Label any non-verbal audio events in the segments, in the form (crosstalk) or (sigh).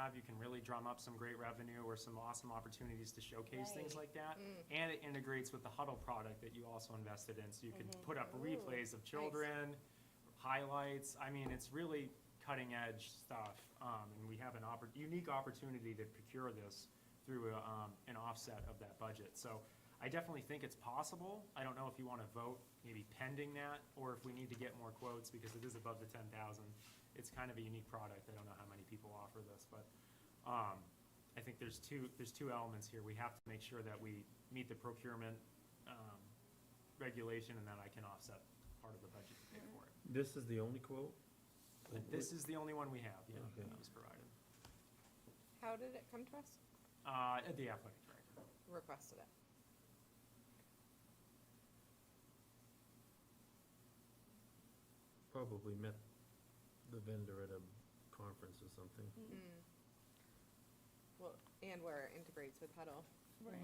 have, you can really drum up some great revenue or some awesome opportunities to showcase things Right. like that. And it integrates with the Huddle product that you also invested in, so you could put up Ooh, replays of children, highlights. I mean, it's really cutting edge stuff. Um, and we have an oppor- unique opportunity to procure this through, a, um, an offset of that budget. So I definitely think it's possible. I don't know if you want to vote maybe pending that or if we need to get more quotes because it is above the ten thousand. It's kind of a unique product. I don't know how many people offer this, but, um, I think there's two, there's two elements here. We have to make sure that we meet the procurement, um, regulation and that I can offset part of the budget to pay for Mm-hmm. it. This is the only quote? But This is the only one we have, yeah, Okay. that was provided. How did it come to us? Uh, at the athletic director. Requested it. Probably met the vendor at a conference or something. Mm. Well, and where it integrates with Huddle.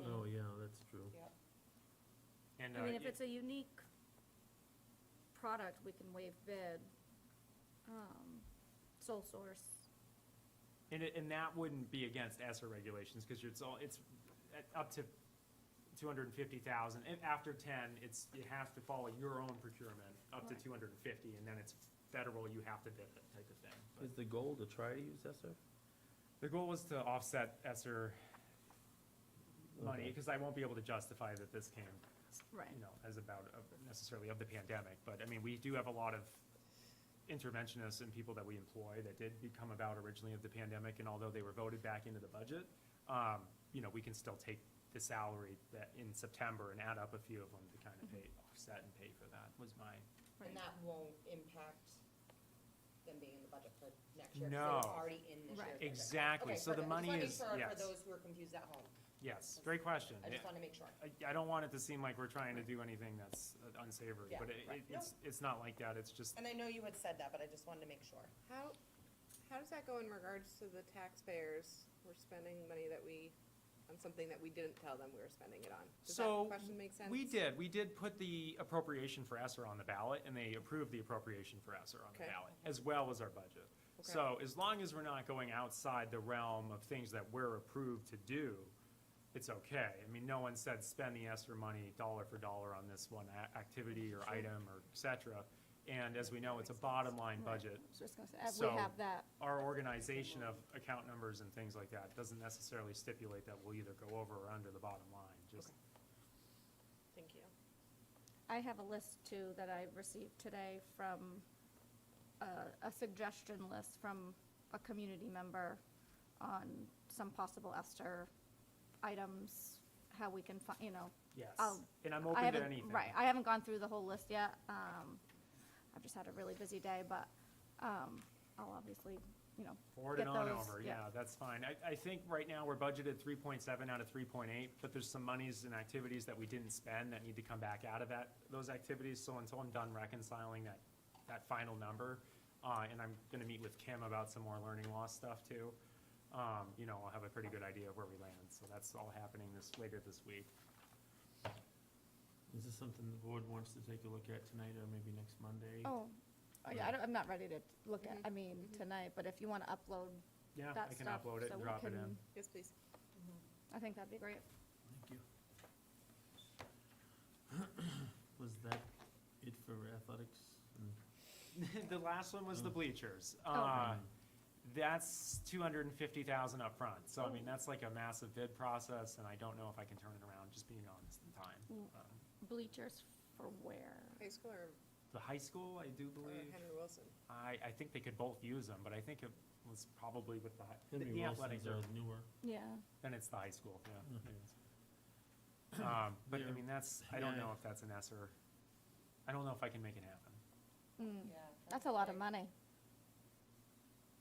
Oh, yeah, that's true. Yep. And, I mean, if uh, it's a unique product, we can waive bid, um, sole source. and it, and that wouldn't be against ESER regulations, cause it's all, it's at- up to two hundred and fifty thousand, and after ten, it's, you have to follow your own procurement, up to Right. two hundred and fifty, and then it's federal, you have to bid it type of thing. But Is the goal to try to use ESER? The goal was to offset ESER money, Okay. cause I won't be able to justify that this came Right. you know, as about of- necessarily of the pandemic, but I mean, we do have a lot of interventionists and people that we employ that did become about originally of the pandemic, and although they were voted back into the budget, um, you know, we can still take the salary that in September and add up a few of them to kind of Mm-hmm. pay, offset and pay for that, was my, Right. And that won't impact them being in the budget for next year? 'cause No. They were alrety in this Right. year's budget. exactly, Okay, so the perfect. I just money wanna make is, sure For yes, those who are confused at home, yes, great question. I just want to make sure. I, I don't want it to seem like we're trying to do anything that's uh, unsavory, Yeah, but it, right. it- it's, it's not like that, it's just, And I know you had said that, but I just wanted to make sure. How, how does that go in regards to the taxpayers? We're spending money that we, on something that we didn't tell them we were spending it on. Does that So, question make sense? We did, we did put the appropriation for ESER on the ballot, and they approved the appropriation for ESER on the Okay. ballot, as well as our budget. Okay. So as long as we're not going outside the realm of things that we're approved to do, it's okay. I mean, no one said spend the ESER money dollar for dollar on this one a- activity or item or et cetera. And as we know, it's a bottom line budget. I was just gonna say, uh, So- we have that, Our organization of account numbers and things like that doesn't necessarily stipulate that we'll either go over or under the bottom line, just Thank you. I have a list too that I received today from, uh, a suggestion list from a community member on some possible Esther items, how we can fi- you know, Yes, I'll- and I'm Um, I open haven't to anything. Right, I haven't gone through the whole list yet. Um, I've just had a really busy day, but, um, I'll obviously, you know, Forward get and on those, over, yeah. yeah, that's fine. I, I think right now we're budgeted three point seven out of three point eight, but there's some monies and activities that we didn't spend that need to come back out of that, those activities. So until I'm done reconciling that, that final number, uh, and I'm gonna meet with Kim about some more learning loss stuff too, um, you know, I'll have a pretty good idea of where we land. So that's all happening this, later this week. Is this something the board wants to take a look at tonight or maybe next Monday? Oh, Mm-hmm. oh, yeah, I don't, I'm not ready to look at, I mean, tonight, but if you wanna upload Yeah, I that can stuff, upload it so and we drop it in. can- Yes, please. I think that'd be great. Thank you. (coughs) Was that it for athletics? Mm. (laughs) and- the last one was the bleachers. Uh, Oh. that's two hundred and fifty thousand up front. So I mean, Oh. that's like a massive bid process, and I don't know if I can turn it around. Just being honest, in time. Mm. Um, Bleachers for where? High school or the high school, I do or believe. Henry Wilson? I, I think they could both use them, but I think it was probably with the, hi- the- Henry the Wilson's athletics. our are- newer. Yeah, Then it's the high school. Yeah. Mhm. um, but I Mm-hmm. Yeah. mean, that's I don't Yeah. know if that's an S or I don't know if I can make it happen. mm, Yeah. that's a lot of money.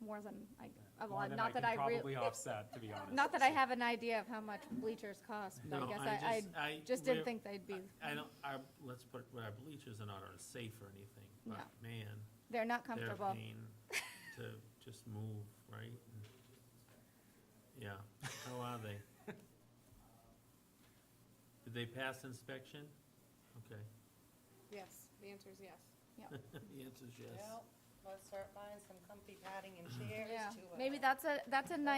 More than, I, uh, More well, than not that can I really. probably offset, (laughs) to be honest. Not that I have an idea of how much bleachers cost, but I No, guess I, I just- I- just didn't we're- think they'd be, I I don't, our, let's put, it where our bleachers are not unsafe or anything, but man, they're not they're a comfortable. pain to just move, right? And- Yeah, how are they? Did they pass inspection? Okay, Yes, the answer is yes. (laughs) the answer's yes. Well, let's start buying some comfy padding and chairs Yeah, to, uh, maybe that's a, that's a nice